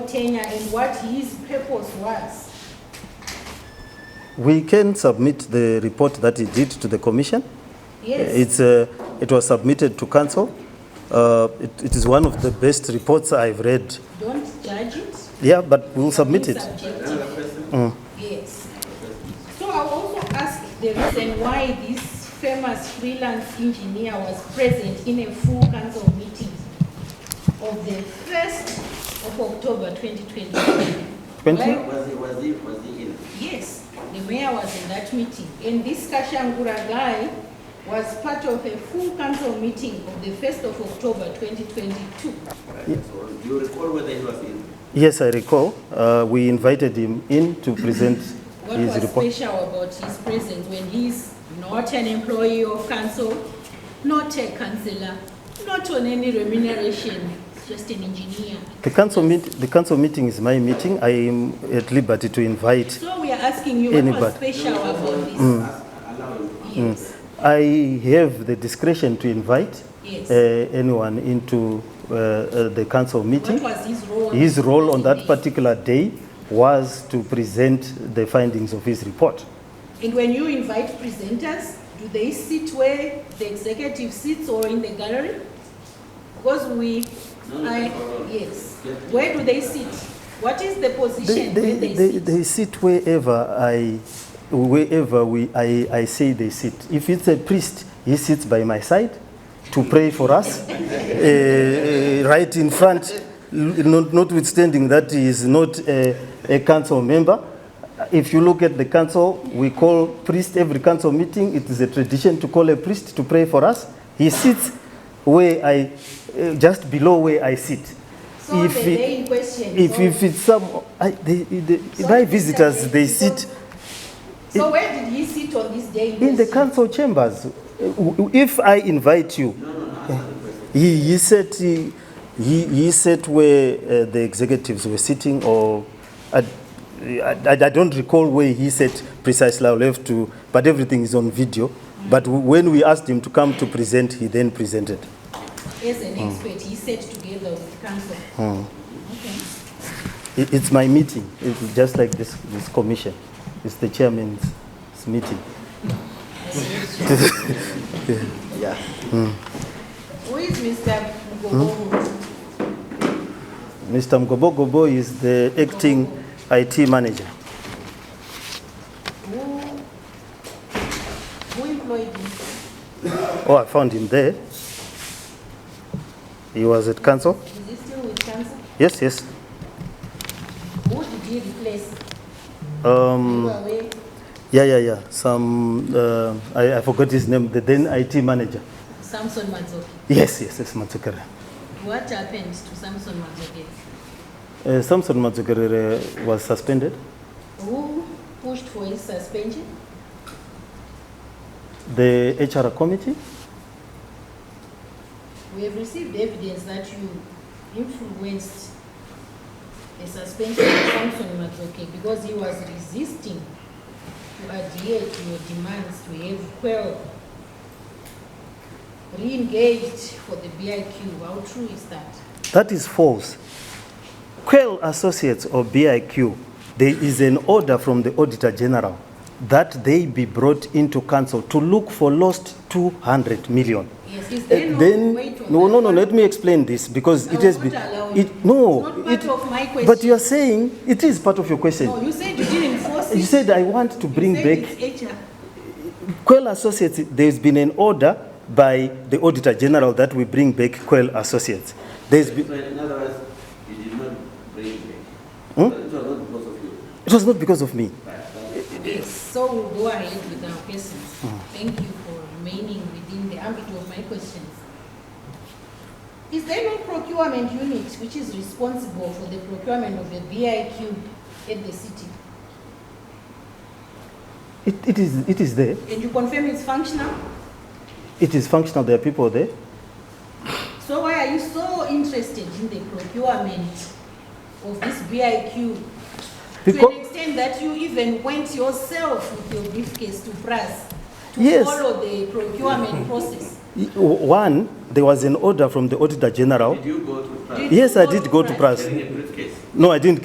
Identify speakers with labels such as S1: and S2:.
S1: tenure and what his purpose was.
S2: We can submit the report that he did to the commission.
S1: Yes,
S2: It's, uh, it was submitted to council. Uh, it- It is one of the best reports I've read.
S1: don't judge it.
S2: Yeah, but we'll submit it. Mm.
S1: Subjective. Yes. So I also ask the reason why this famous freelance engineer was present in a full council meeting of the first of October twenty twenty.
S2: Twenty?
S3: Was he, was he, was he in?
S1: Yes, the mayor was in that meeting, and this Kashangura guy was part of a full council meeting of the first of October twenty twenty-two.
S3: So do you recall whether he was in?
S2: Yes, I recall. Uh, We invited him in to present
S1: What
S2: his
S1: was
S2: report.
S1: special about his presence when he's not an employee of council, not a councillor, not on any remuneration, just an engineer?
S2: The council meet, the council meeting is my meeting. I am at liberty to invite.
S1: So we are asking you, what was
S2: Anybody. Mm.
S1: special about
S3: Mm.
S1: this?
S3: Ask- Allow him.
S1: Yes,
S2: I have the discretion to invite uh,
S1: yes.
S2: anyone into uh, uh, the council meeting.
S1: What was his role?
S2: His role on that
S1: particular.
S2: particular day was to present the findings of his report.
S1: And when you invite presenters, do they sit where the executive sits or in the gallery? Because we,
S3: No, no,
S1: I,
S3: no, no.
S1: yes.
S3: Yeah.
S1: Where do they sit? What is the
S2: They,
S1: position
S2: they,
S1: where
S2: they,
S1: they
S2: they,
S1: sit?
S2: sit wherever I, wherever we, I, I say they sit. If it's a priest, he sits by my side to pray for us, eh, eh, right in front, l- not, notwithstanding that he is not a, a council member. If you look at the council, we call priest every council meeting. It is a tradition to call a priest to pray for us. He sits where I, eh, just below where I sit.
S1: So
S2: If
S1: the
S2: he-
S1: day in question.
S2: if,
S1: so-
S2: if it's some, I, they, they,
S1: So
S2: my
S1: if it's
S2: visitors,
S1: like-
S2: they
S1: so-
S2: sit
S1: So where did he sit on this day?
S2: in the
S1: question?
S2: council chambers. Uh, If I invite you, he, he said he, he, he said where uh, the executives were sitting, or I, I, I don't recall where he said precisely. I'll have to, but everything is on video. But when we asked him to come to present, he then presented.
S1: As
S2: Hmm.
S1: an expert, he sat together with council. Okay.
S2: It, it's my meeting, it's just like this, this commission. It's the chairman's meeting.
S3: Yeah.
S1: Who is Mr.
S2: Hmm?
S1: Mugogo?
S2: Mr. Mgobogobo is the acting IT manager.
S1: Who, who employed him?
S2: Oh, I found him there. He was at council.
S1: Is he still with council?
S2: Yes, yes.
S1: Who did he replace? You
S2: Um,
S1: are away.
S2: yeah, yeah, yeah. Some, uh, I, I forgot his name, the then IT manager.
S1: Samson Mazoke.
S2: Yes, yes, yes, Matsukerere.
S1: What happened to Samson Mazoke?
S2: Uh, Samson Matsukerere was suspended.
S1: Who pushed for his suspension?
S2: The HR committee,
S1: We have received evidence that you influenced the suspension of Samson Mazoke because he was resisting to adhere to your demands to have quell re-engaged for the BIQ. How true is that?
S2: that is false. Quell Associates or BIQ, there is an order from the Auditor General that they be brought into council to look for lost 200 million.
S1: Yes, is
S2: Uh,
S1: there no
S2: then
S1: weight on
S2: no no
S1: that
S2: no
S1: one?
S2: let me explain this because
S1: I
S2: it
S1: will
S2: has
S1: not
S2: been
S1: allow it.
S2: it no
S1: It's not part
S2: it-
S1: of my
S2: but
S1: question.
S2: you are saying it is part of your question
S1: No, you said you didn't force it.
S2: you said i want to bring
S1: You
S2: back
S1: said it's HR.
S2: quell associates there's been an order by the auditor general that we bring back quell associates there's
S3: So
S2: been,
S3: in other words, you did not bring him.
S2: Hmm?
S3: So It was not because of you.
S2: it was not because of me
S1: Yes, so we'll go ahead with our questions.
S2: Mm.
S1: Thank you for remaining within the ambit of my questions. Is there no procurement unit which is responsible for the procurement of the BIQ at the city?
S2: it, it is it is there
S1: And you confirm it's functional?
S2: it is functional there are people there
S1: So why are you so interested in the procurement of this BIQ? To
S2: Because-
S1: an extent that you even went yourself with your briefcase to press to
S2: Yes.
S1: follow the procurement process?
S2: Y- w- one there was an order from the auditor general
S3: Did you go to France
S1: Did
S2: yes
S1: you
S2: i
S1: go
S2: did
S1: to
S2: go to
S1: Pras?
S2: press
S3: carrying a briefcase?
S2: No, I didn't